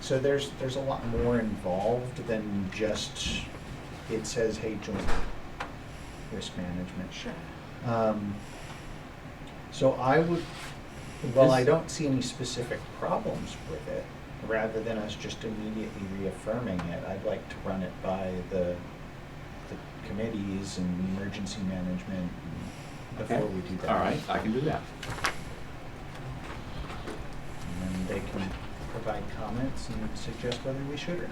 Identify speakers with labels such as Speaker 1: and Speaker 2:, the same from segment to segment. Speaker 1: So there's, there's a lot more involved than just, it says, hey, join risk management.
Speaker 2: Sure.
Speaker 1: Um, So I would, well, I
Speaker 3: This-
Speaker 1: don't see any specific problems with it, rather than us just immediately reaffirming it, I'd like to run it by the, the committees and emergency management and
Speaker 3: Okay.
Speaker 1: before we do that.
Speaker 3: All right, I can do that.
Speaker 1: And then they can provide comments and suggest whether we should or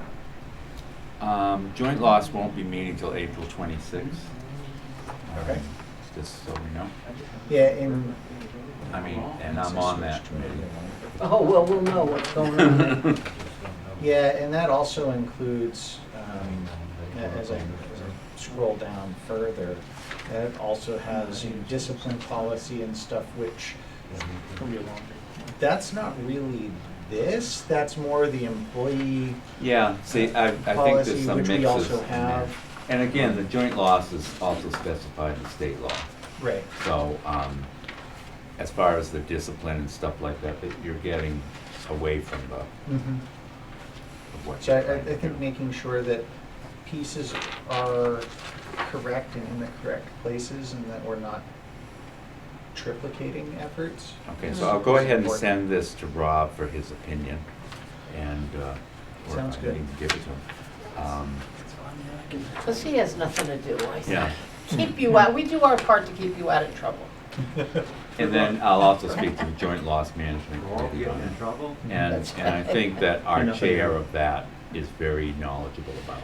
Speaker 1: not.
Speaker 3: Um, joint loss won't be meeting till April twenty-sixth.
Speaker 1: Okay.
Speaker 3: Just so we know.
Speaker 1: Yeah, and.
Speaker 3: I mean, and I'm on that committee.
Speaker 4: Oh, well, we'll know what's going on.
Speaker 1: Yeah, and that also includes, um, as I as I scroll down further, that also has you know, discipline policy and stuff, which, that's not really this, that's more the employee,
Speaker 3: Yeah, see, I, I think
Speaker 1: Policy,
Speaker 3: there's some
Speaker 1: which
Speaker 3: mixes
Speaker 1: we
Speaker 3: in
Speaker 1: also
Speaker 3: there.
Speaker 1: have.
Speaker 3: And again, the joint loss is also specified in state law.
Speaker 1: right,
Speaker 3: So, um, as far as the discipline and stuff like that, that you're getting away from the,
Speaker 1: mhm.
Speaker 3: of what
Speaker 1: So
Speaker 3: you're
Speaker 1: I,
Speaker 3: trying
Speaker 1: I
Speaker 3: to
Speaker 1: think
Speaker 3: do.
Speaker 1: making sure that pieces are correct and in the correct places and that we're not triplicating efforts.
Speaker 3: Okay, so I'll go ahead and send this to Rob for his opinion, and, uh, or I
Speaker 1: Sounds good.
Speaker 3: can give it to him. Um,
Speaker 4: Because he has nothing to do, I think.
Speaker 3: Yeah,
Speaker 4: Keep you out, we do our part to keep you out of trouble.
Speaker 3: and then I'll also speak to the Joint Loss Management Committee on it.
Speaker 5: trouble?
Speaker 3: And,
Speaker 4: That's
Speaker 3: and I
Speaker 4: right.
Speaker 3: think that our
Speaker 1: Enough of
Speaker 3: chair
Speaker 1: you.
Speaker 3: of that is very knowledgeable about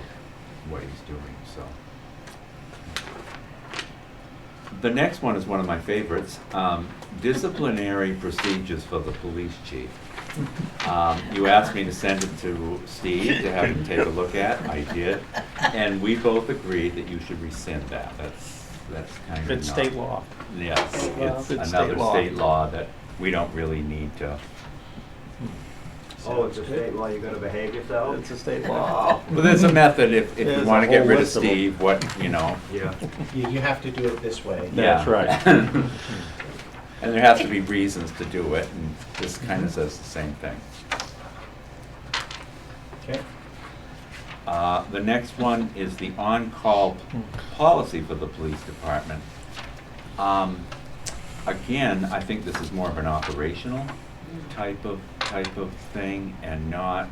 Speaker 3: what he's doing, so. The next one is one of my favorites, um, disciplinary procedures for the police chief. Um, you asked me to send it to Steve to have him take a look at, I did, and we both agreed that you should rescind that, that's, that's kind of
Speaker 5: It's
Speaker 3: not-
Speaker 5: state law.
Speaker 3: Yes,
Speaker 4: State law.
Speaker 3: it's
Speaker 5: It's
Speaker 3: another
Speaker 5: state law.
Speaker 3: state law that we don't really need to.
Speaker 6: Oh, it's a state law, you gotta behave yourself?
Speaker 5: It's a state law.
Speaker 3: Well, there's a method if, if you
Speaker 5: There's a
Speaker 3: wanna get
Speaker 5: whole
Speaker 3: rid of
Speaker 5: list of 'em.
Speaker 3: Steve, what, you know,
Speaker 6: Yeah.
Speaker 1: You, you have to do it this way.
Speaker 3: yeah.
Speaker 5: That's right.
Speaker 3: And there has to be reasons to do it, and this kinda says the same thing.
Speaker 1: Okay.
Speaker 3: Uh, the next one is the on-call p- policy for the police department. Um, again, I think this is more of an operational type of, type of thing and not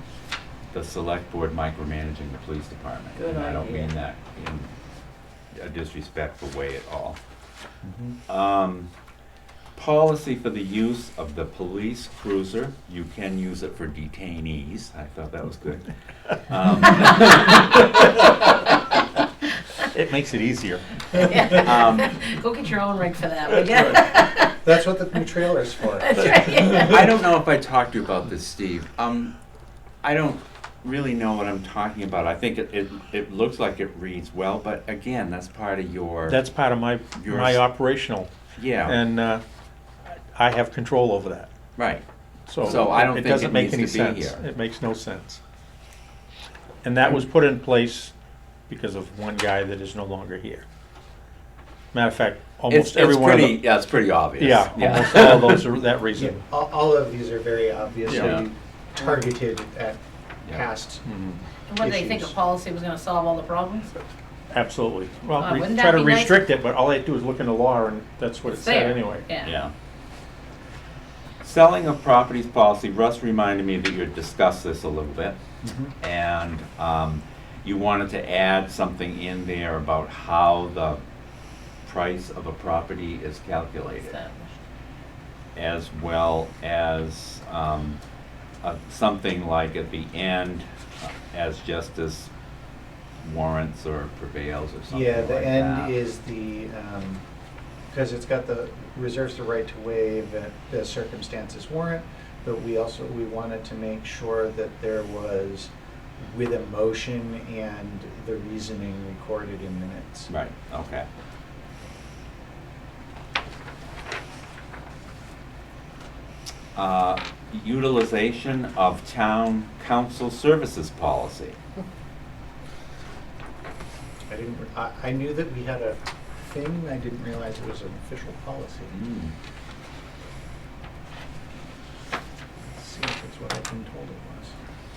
Speaker 3: the select board micromanaging the police department.
Speaker 4: Good
Speaker 3: And I don't
Speaker 4: idea.
Speaker 3: mean that in a disrespectful way at all. Um, policy for the use of the police cruiser, you can use it for detainees, I thought that was good. Um,
Speaker 5: It makes it easier.
Speaker 3: Um, um,
Speaker 4: Go get your own rig for that, will ya?
Speaker 1: That's what the new trailer's for.
Speaker 4: That's right.
Speaker 3: I don't know if I talked to you about this, Steve. Um, I don't really know what I'm talking about. I think it, it, it looks like it reads well, but again, that's part of your.
Speaker 5: That's part of my,
Speaker 3: Yours.
Speaker 5: my operational,
Speaker 3: Yeah,
Speaker 5: and uh, I have control over that.
Speaker 3: right.
Speaker 5: So
Speaker 3: So I don't
Speaker 5: it
Speaker 3: think
Speaker 5: doesn't
Speaker 3: it
Speaker 5: make any
Speaker 3: needs to be
Speaker 5: sense.
Speaker 3: here.
Speaker 5: It makes no sense. And that was put in place because of one guy that is no longer here. Matter of fact,
Speaker 3: It's,
Speaker 5: almost
Speaker 3: it's
Speaker 5: every one of
Speaker 3: pretty,
Speaker 5: the,
Speaker 3: yeah, it's pretty obvious.
Speaker 5: yeah, almost all of those are that
Speaker 1: Yeah,
Speaker 5: reason.
Speaker 1: all, all of these are very obviously
Speaker 3: Yeah.
Speaker 1: targeted at
Speaker 3: Yeah. Mm-hmm.
Speaker 1: past.
Speaker 5: Mhm.
Speaker 4: And What, they think a
Speaker 1: Issues.
Speaker 4: policy was gonna solve all the problems?
Speaker 5: Absolutely. Well,
Speaker 4: Uh,
Speaker 5: re-
Speaker 4: wouldn't
Speaker 5: try
Speaker 4: that
Speaker 5: to
Speaker 4: be nice?
Speaker 5: restrict it, but all they do is look in the law, and that's what it
Speaker 4: It's
Speaker 5: said
Speaker 4: there.
Speaker 5: anyway.
Speaker 4: Yeah.
Speaker 3: Yeah. Selling of properties policy, Russ reminded me that you had discussed this a little bit.
Speaker 5: Mm-hmm.
Speaker 3: And um, you wanted to add something in there about how the price of a property is calculated,
Speaker 4: So,
Speaker 3: as well as um, uh, something like at the end, uh, as justice warrants or prevails or something
Speaker 1: Yeah,
Speaker 3: like
Speaker 1: the
Speaker 3: that.
Speaker 1: end is the, um, because it's got the, reserves the right to waive at the circumstances warrant, but we also, we wanted to make sure that there was with a motion and the reasoning recorded in minutes.
Speaker 3: Right, okay. Uh, Utilization of town council services policy.
Speaker 1: I didn't, re- I, I knew that we had a thing, I didn't realize it was an official policy.
Speaker 3: Mm.
Speaker 1: Let's see if it's what I've been told it